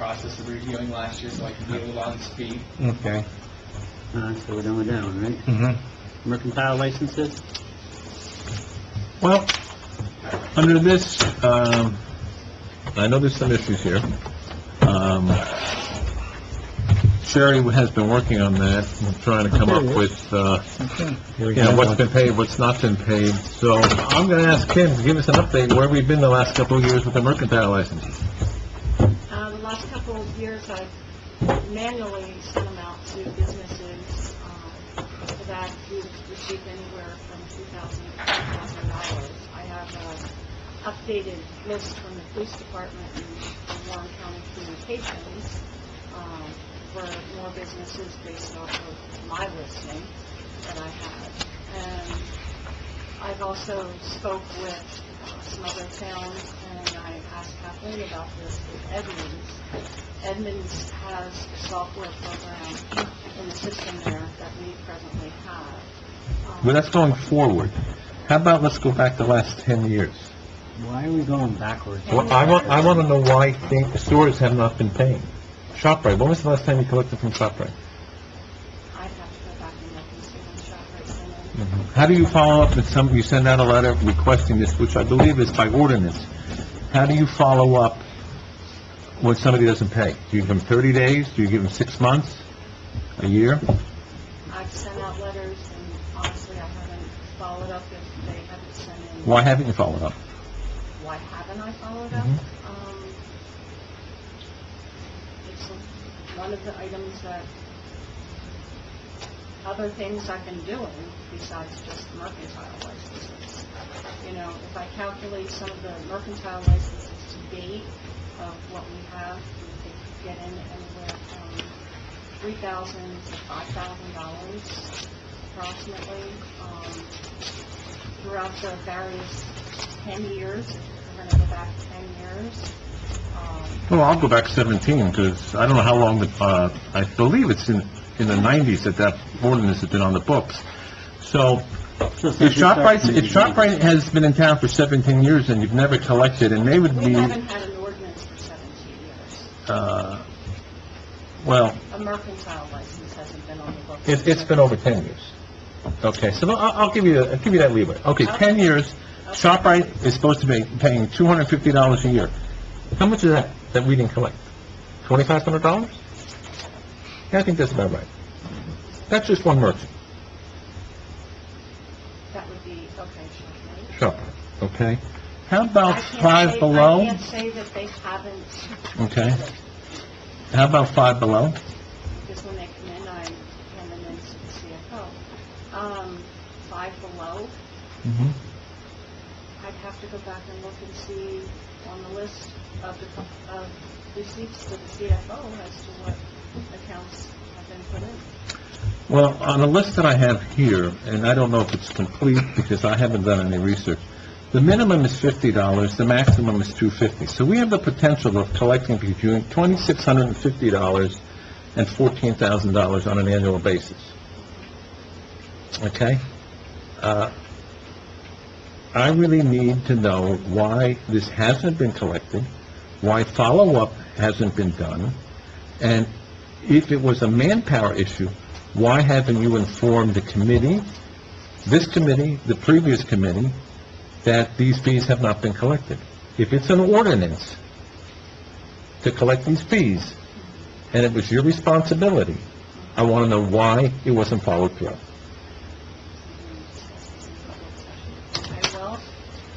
process of reviewing last year, so I can be a little on speed. Okay. All right, so we're done with that one, right? Mm-hmm. Mercantile licenses? Well, under this, um, I know there's some issues here. Um, Sherry has been working on that, and trying to come up with, uh, you know, what's been paid, what's not been paid. So I'm gonna ask Kim to give us an update where we've been the last couple of years with the mercantile licenses. Uh, The last couple of years, I've manually sent them out to businesses um, that we've received anywhere from $2,000 to $5,000. I have uh, an updated list from the police department and Warren County Communications um, for more businesses based off of my listing that I had. And I've also spoke with uh, some other towns, and I asked Kathleen about this with Edmonds. Edmonds has a software program in the system there that we presently have. Um, Well, that's going forward. How about let's go back the last 10 years? Why are we going backwards? Well, I want, I want to know why think stores have not been paying. ShopRite, when was the last time you collected from ShopRite? I'd have to go back and look and see when ShopRite sent in. How do you follow up with some, you send out a letter requesting this, which I believe is by ordinance. How do you follow up when somebody doesn't pay? Do you give them 30 days? Do you give them six months? A year? I've sent out letters, and honestly, I haven't followed up if they haven't sent in. Why haven't you followed up? why haven't I followed up? Mhm. Um, It's one of the items that, other things I've been doing besides just mercantile licenses. You know, if I calculate some of the mercantile licenses to date of what we have, we could get in anywhere from three thousand to five thousand dollars approximately. Um, Throughout the various 10 years, if we're going to go back 10 years. Um, Well, I'll go back 17, because I don't know how long, the uh, I believe it's in, in the 90s that that ordinance has been on the books. So if ShopRite, if ShopRite has been in town for 17 years and you've never collected, and they would We be, haven't had an ordinance for 17 years. uh, well, A mercantile license hasn't been on the books. It, it's been over 10 years. Okay, so I'll, I'll give you, I'll give you that leeway. Okay, 10 years, ShopRite is supposed to be paying $250 a year. How much is that, that we didn't collect? $2,500? Yeah, I think that's about right. That's just one merchant, That would be, okay, sure. ShopRite, okay? How about I can't Five say- I Below? can't say that they haven't, Okay. How about Five Below? because when they come in, I hand them in to the CFO. Um, Five Below, Mm-hmm. I'd have to go back and look and see on the list of the, co- of receipts to the CFO as to what accounts have been put in. Well, on a list that I have here, and I don't know if it's complete because I haven't done any research, the minimum is fifty dollars, the maximum is two fifty. So we have the potential of collecting between twenty-six hundred and fifty dollars and fourteen thousand dollars on an annual basis. Okay? Uh, I really need to know why this hasn't been collected, why follow-up hasn't been done, and if it was a manpower issue, why haven't you informed the committee, this committee, the previous committee, that these fees have not been collected? If it's an ordinance to collect these fees, and it was your responsibility, I want to know why it wasn't followed through. Okay, well,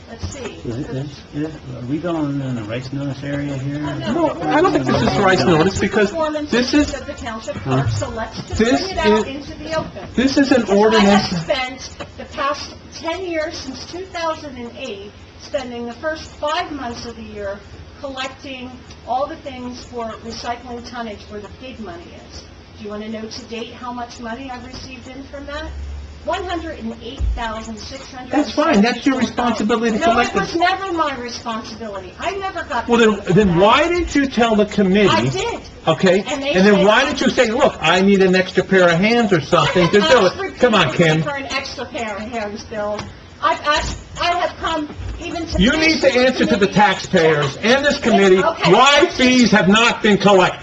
let's see. Is it- is- is- Are we going in the rice notice area here? No, I don't think this is rice notice, because this is, Performance of the township clerk, so let's just bring This it out is- into the open. this is an Because I ordinance... have spent the past 10 years, since 2008, spending the first five months of the year collecting all the things for recycling tonnage where the big money is. Do you want to know to date how much money I've received in from that? $108,600. That's fine, that's your responsibility to collect No, the- it was never my responsibility. I never got... Well, paid for then, then that. why didn't you tell the committee? I did. Okay, And they and then said- why didn't you say, look, I need an extra pair of hands or something to do it? Come on, I've asked Kim. For an extra pair of hands, Bill. I've asked, I have come even to... You need to answer to the taxpayers and this committee Okay. why fees have not been collected.